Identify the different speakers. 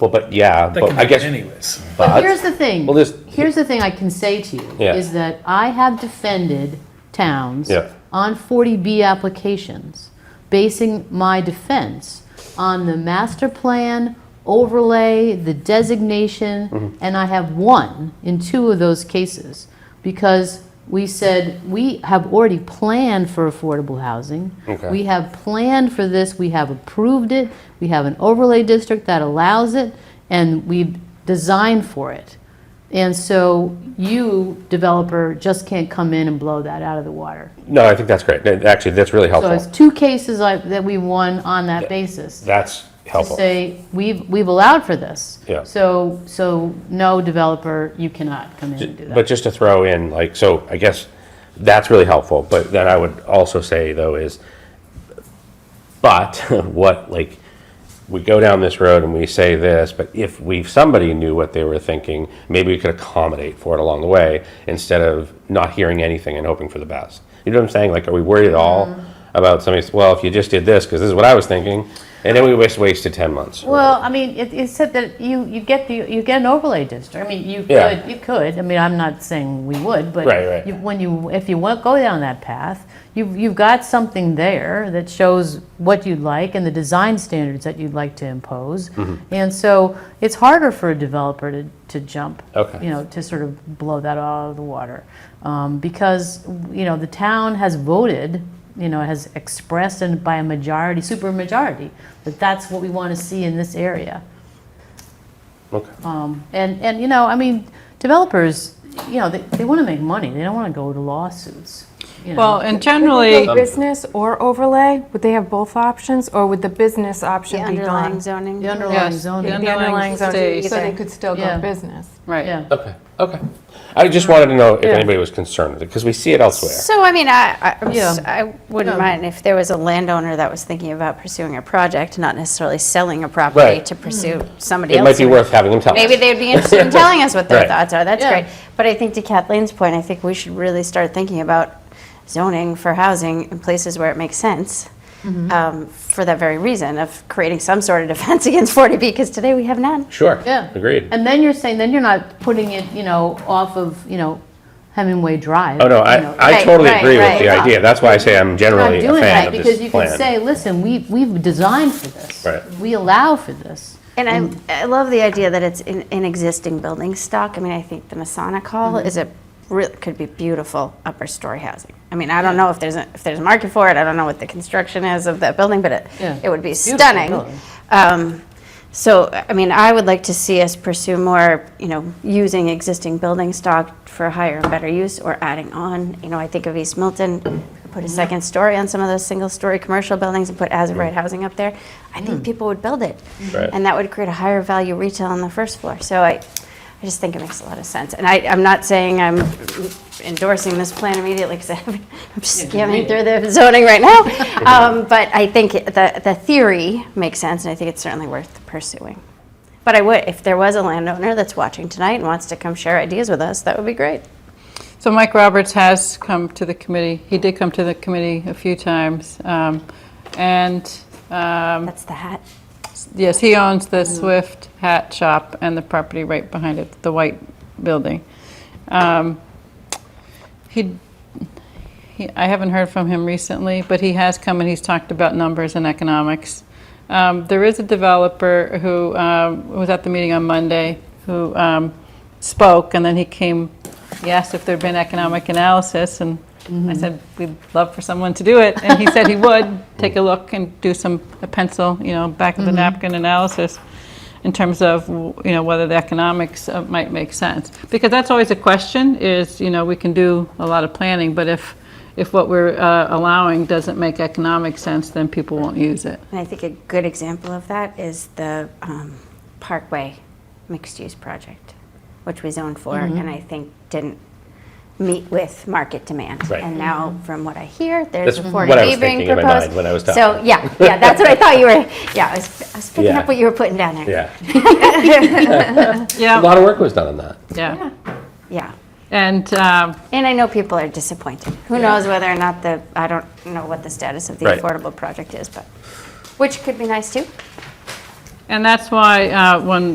Speaker 1: Well, but yeah,
Speaker 2: That
Speaker 1: but
Speaker 2: can
Speaker 1: I
Speaker 2: be
Speaker 1: guess,
Speaker 2: anyways.
Speaker 1: but,
Speaker 3: Here's the thing.
Speaker 1: Well, this-
Speaker 3: Here's the thing I can say to you
Speaker 1: Yeah.
Speaker 3: is that I have defended towns
Speaker 1: Yeah.
Speaker 3: on 40B applications, basing my defense on the master plan overlay, the designation,
Speaker 1: Mm-hmm.
Speaker 3: and I have won in two of those cases because we said we have already planned for affordable housing.
Speaker 1: Okay.
Speaker 3: We have planned for this, we have approved it, we have an overlay district that allows it, and we've designed for it. And so you, developer, just can't come in and blow that out of the water.
Speaker 1: no, I think that's great. That- Actually, that's really
Speaker 3: So it's
Speaker 1: helpful.
Speaker 3: two cases I- that we won on that basis.
Speaker 1: That's
Speaker 3: To
Speaker 1: helpful.
Speaker 3: say, we've, we've allowed for this.
Speaker 1: Yeah.
Speaker 3: So, so no, developer, you cannot come in and do that.
Speaker 1: But just to throw in, like, so I guess that's really helpful, but then I would also say though is, but what, like, we go down this road and we say this, but if we, if somebody knew what they were thinking, maybe we could accommodate for it along the way instead of not hearing anything and hoping for the best. You know what I'm saying? Like, are we worried at all
Speaker 3: Mm-hmm.
Speaker 1: about somebody's, well, if you just did this, because this is what I was thinking, and then we waste, wasted ten months.
Speaker 3: Well, I mean, it, it said that you, you get the, you get an overlay district. I mean, you
Speaker 1: Yeah.
Speaker 3: could, you could. I mean, I'm not saying we would, but
Speaker 1: Right, right.
Speaker 3: you- when you, if you want, go down that path, you've, you've got something there that shows what you'd like and the design standards that you'd like to impose. And so it's harder for a developer to, to jump.
Speaker 1: Okay.
Speaker 3: You know, to sort of blow that out of the water. Um, because, you know, the town has voted, you know, has expressed and by a majority, super majority, that that's what we want to see in this area.
Speaker 1: Okay.
Speaker 3: Um, And, and, you know, I mean, developers, you know, they, they want to make money, they don't want to go to lawsuits, you know.
Speaker 4: Well, and
Speaker 5: Would
Speaker 4: generally,
Speaker 5: they
Speaker 6: Um,
Speaker 5: Business or overlay, would they have both options, or would the business
Speaker 6: The
Speaker 5: option be
Speaker 6: underlying
Speaker 5: gone?
Speaker 6: zoning.
Speaker 3: The underlying
Speaker 4: yes, the
Speaker 3: zoning.
Speaker 5: The
Speaker 4: underlying
Speaker 5: zone,
Speaker 4: stays,
Speaker 5: So they could still
Speaker 3: Yeah.
Speaker 5: go business.
Speaker 4: right.
Speaker 3: Yeah,
Speaker 1: Okay, okay. I just wanted to know if
Speaker 3: Yeah.
Speaker 1: anybody was concerned with it, because we see it elsewhere.
Speaker 6: So, I mean, I, I- I'm
Speaker 3: Yeah.
Speaker 6: s- I wouldn't
Speaker 3: Yeah.
Speaker 6: mind if there was a landowner that was thinking about pursuing a project, not necessarily selling a property
Speaker 1: Right.
Speaker 6: to pursue
Speaker 3: Hmm.
Speaker 6: somebody
Speaker 1: It
Speaker 6: else.
Speaker 1: might be worth having them tell us.
Speaker 6: Maybe they'd be interested in telling us what their
Speaker 1: Right.
Speaker 6: thoughts are, that's
Speaker 3: Yeah.
Speaker 6: great. But I think to Kathleen's point, I think we should really start thinking about zoning for housing in places where it makes sense,
Speaker 3: Mm-hmm.
Speaker 6: um, for that very reason of creating some sort of defense against 40B, because today we have none.
Speaker 1: Sure.
Speaker 3: yeah.
Speaker 1: Agreed.
Speaker 3: And then you're saying, then you're not putting it, you know, off of, you know, Hemingway Drive.
Speaker 1: Oh, no,
Speaker 3: you know.
Speaker 1: I, I
Speaker 6: Right,
Speaker 1: totally
Speaker 6: right,
Speaker 1: agree with
Speaker 6: right.
Speaker 1: the idea. That's why I say I'm
Speaker 3: Not
Speaker 1: generally a
Speaker 3: doing
Speaker 1: fan
Speaker 3: that,
Speaker 1: of
Speaker 3: because
Speaker 1: this
Speaker 3: you can
Speaker 1: plan.
Speaker 3: say, listen, we, we've designed for this.
Speaker 1: Right.
Speaker 3: We allow for this.
Speaker 6: And I, I love the idea that it's in, in existing building stock. I mean, I think the Masonic Hall
Speaker 3: Mm-hmm.
Speaker 6: is a real, could be beautiful upper story housing. I mean, I don't know if there's a, if there's a market for it. I don't know what the construction is of that building, but it
Speaker 3: Yeah.
Speaker 6: it would be
Speaker 3: Beautiful building.
Speaker 6: stunning. Um, so, I mean, I would like to see us pursue more, you know, using existing building stock for higher and better use or adding on. You know, I think of East Milton, put
Speaker 3: Mm-hmm.
Speaker 6: a second story on some of those single-story commercial buildings and put as-of-right housing up there. I
Speaker 3: Mm.
Speaker 6: think people would build it.
Speaker 1: Right.
Speaker 6: And that would create a higher value retail on the first floor. So I, I just think it makes a lot of sense. And I, I'm not saying I'm endorsing this plan immediately because I'm just skimming through the zoning right now. Um, But I think it- the, the theory makes sense and I think it's certainly worth pursuing. But I would, if there was a landowner that's watching tonight and wants to come share ideas with us, that would be great.
Speaker 4: So Mike Roberts has come to the committee, he did come to the committee a few times. um, And, um,
Speaker 6: That's the hat.
Speaker 4: yes, he owns the Swift Hat Shop and the property right behind it, the white building. Um, He, he- I haven't heard from him recently, but he has come and he's talked about numbers and economics. Um, there is a developer who um, was at the meeting on Monday who um, spoke, and then he came. He asked if there'd been economic analysis, and I said we'd love for someone to do it, and he said he would take a look and do some a pencil, you know, back of the napkin analysis in terms of you know whether the economics uh, might make sense because that's always a question is you know we can do a lot of planning but if if what we're uh, allowing doesn't make economic sense then people won't use it
Speaker 6: And I think a good example of that is the um, Parkway mixed-use project, which we zoned for,
Speaker 1: Mm-hmm.
Speaker 6: and I think didn't meet with market demand.
Speaker 1: Right.
Speaker 6: And now, from what I hear, there's
Speaker 1: That's
Speaker 6: a
Speaker 1: what I was
Speaker 6: 40B being
Speaker 1: thinking in my
Speaker 6: proposed.
Speaker 1: mind when I was
Speaker 6: So,
Speaker 1: talking.
Speaker 6: yeah, yeah, that's what I thought you were, yeah, I was- I was picking
Speaker 1: Yeah.
Speaker 6: up what you were putting down there.
Speaker 1: Yeah. A
Speaker 4: yeah
Speaker 1: lot of work was done on that.
Speaker 4: yeah
Speaker 6: Yeah.
Speaker 4: and um,
Speaker 6: And I know people are disappointed. Who knows whether or not the, I don't know what the status of the
Speaker 1: Right.
Speaker 6: affordable project is, but, which could be nice too.
Speaker 4: And that's why uh, when